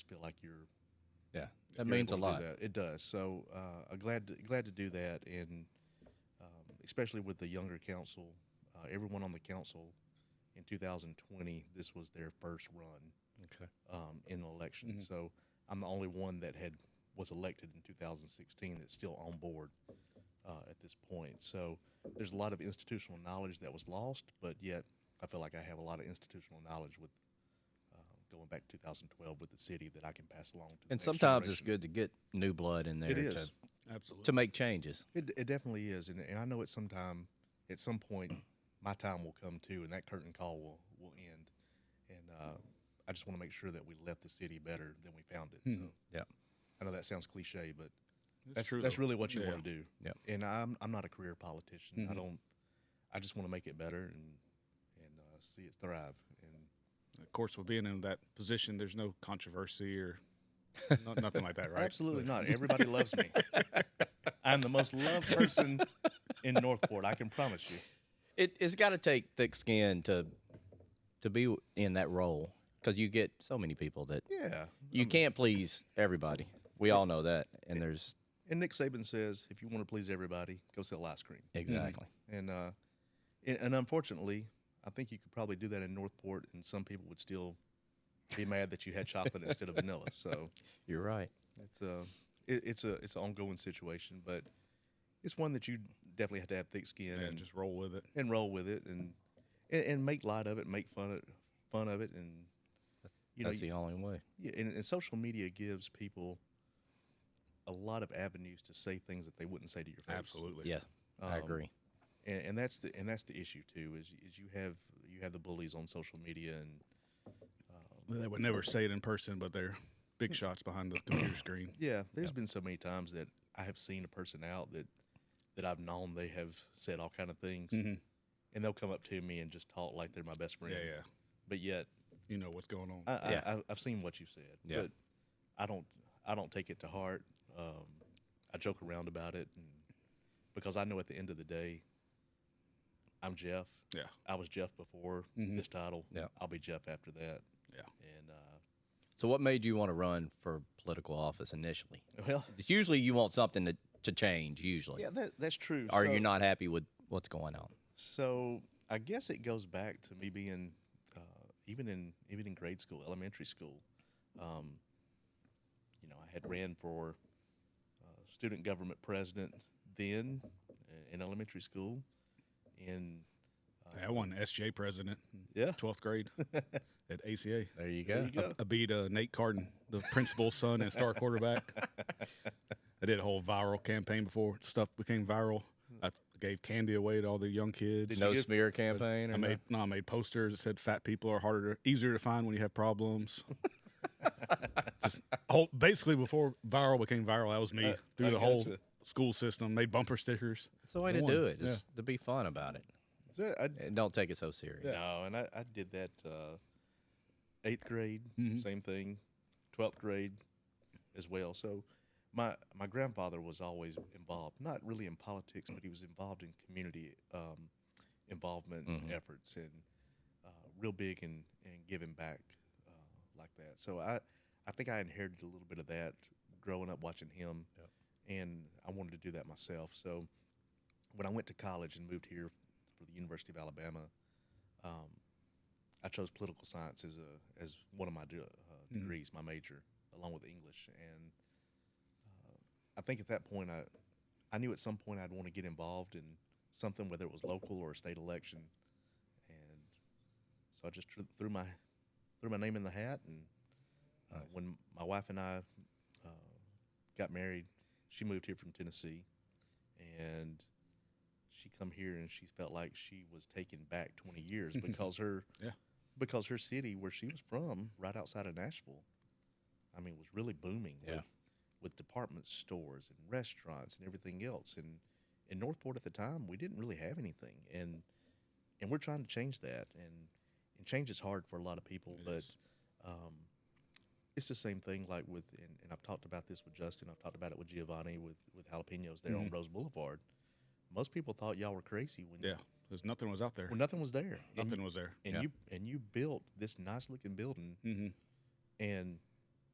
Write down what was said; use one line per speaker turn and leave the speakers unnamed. feel like you're
Yeah,
you're
that means a
able to
lot.
do that. It does. So uh, I'm glad to, glad to do that, and um, especially with the younger council, uh, everyone on the council in 2020, this was their first run
Okay.
um, in an election.
Mm-hmm.
So I'm the only one that had was elected in 2016 that's still on board uh, at this point. So there's a lot of institutional knowledge that was lost, but yet I feel like I have a lot of institutional knowledge with. uh, Going back to 2012 with the city that I can pass along to. The
And
next
sometimes
generation.
it's good to get new blood in there
It
to,
is.
Absolutely.
to make changes.
It, it definitely is, and, and I know at some time, at some point, my time will come too, and that curtain call will will end. And uh, I just want to make sure that we left the city better than we found it. So
Yeah.
I know that sounds cliche, but
It's
that's
true,
that's
though.
really what you
Yeah.
want to do.
Yeah.
And I'm I'm not a career politician. I don't. I just want to make it better and and uh, see it thrive. And
Of course, with being in that position, there's no controversy or no, nothing like that, right?
Absolutely not. Everybody loves me. I'm the most loved person in Northport. I can promise you.
It, it's got to take thick skin to to be in that role because you get so many people that
Yeah.
you can't please everybody. We all know that, and there's
And Nick Saban says, if you want to please everybody, go sell ice cream.
exactly
And uh, and, and unfortunately, I think you could probably do that in Northport, and some people would still be mad that you had chocolate instead of vanilla. So
you're right.
it's a it, it's a it's an ongoing situation, but it's one that you definitely have to have thick skin
Yeah,
and
just roll with it.
and roll with it and, and and make light of it, make fun of fun of it, and you know
That's the only way.
yeah, and, and social media gives people a lot of avenues to say things that they wouldn't say to your face.
Absolutely.
Yeah, I
Um,
agree.
and, and that's the and that's the issue too is is you have you have the bullies on social media and
They would never say it in person, but they're big shots behind the computer screen.
yeah there's been so many times that I have seen a person out that that I've known they have said all kind of things and they'll come up to me and just talk like they're my best friend
Yeah, yeah.
but yet
You know what's going on.
I, I,
Yeah.
I I've seen what you said
Yeah.
but I don't I don't take it to heart um, I joke around about it and because I know at the end of the day I'm Jeff
yeah,
I was Jeff before this title
Mm-hmm. Yeah.
I'll be Jeff after that
yeah.
and uh,
So, what made you want to run for political office initially?
Well,
It's usually you want something to, to change. Usually,
yeah, that, that's true.
or
so,
you're not happy with what's going on.
So I guess it goes back to me being, uh, even in even in grade school, elementary school. Um, you know, I had ran for uh, student government president then uh, in elementary school, and uh,
I won SJ president,
yeah,
twelfth grade at ACA.
There you
there you go.
I beat uh, Nate Carden, the principal's son and star quarterback. I did a whole viral campaign before stuff became viral. I th- gave candy away to all the young kids.
No
you give-
smear campaign. Or
I made no, I made posters that said fat people are harder, easier to find when you have problems. Just whole, basically before viral became viral, that was me through
I
the whole
gotcha.
school system. Made bumper stickers.
It's the way
I
to
won.
do it.
Yeah.
Is to be fun about it.
So I,
And don't take it so serious.
No, and I, I did that uh, eighth grade, same thing, twelfth grade as well. So my my grandfather was always involved, not really in politics, but he was involved in community um, involvement efforts and uh, real big in, in giving back uh, like that. So I I think I inherited a little bit of that growing up watching him, and I wanted to do that myself. So when I went to college and moved here for the University of Alabama, um, I chose political science as a as one of my de- uh, degrees, my major, along with English. And uh, I think at that point, I I knew at some point I'd want to get involved in something, whether it was local or a state election. And so I just tr- threw my threw my name in the hat. And uh, when my wife and I uh, got married, she moved here from Tennessee, and she come here and she felt like she was taken back 20 years because her
Yeah.
because her city where she was from right outside of Nashville I mean was really booming
Yeah.
with with department stores and restaurants and everything else and in Northport at the time we didn't really have anything and and we're trying to change that and and change is hard for a lot of people
It
but
is.
um it's the same thing like with and, and I've talked about this with Justin I've talked about it with Giovanni with with jalapenos there on Rose Boulevard most people thought y'all were crazy when
Yeah, because nothing was out there.
when nothing was there. And,
nothing was there.
and you and you built this nice looking building,
Mhm.
and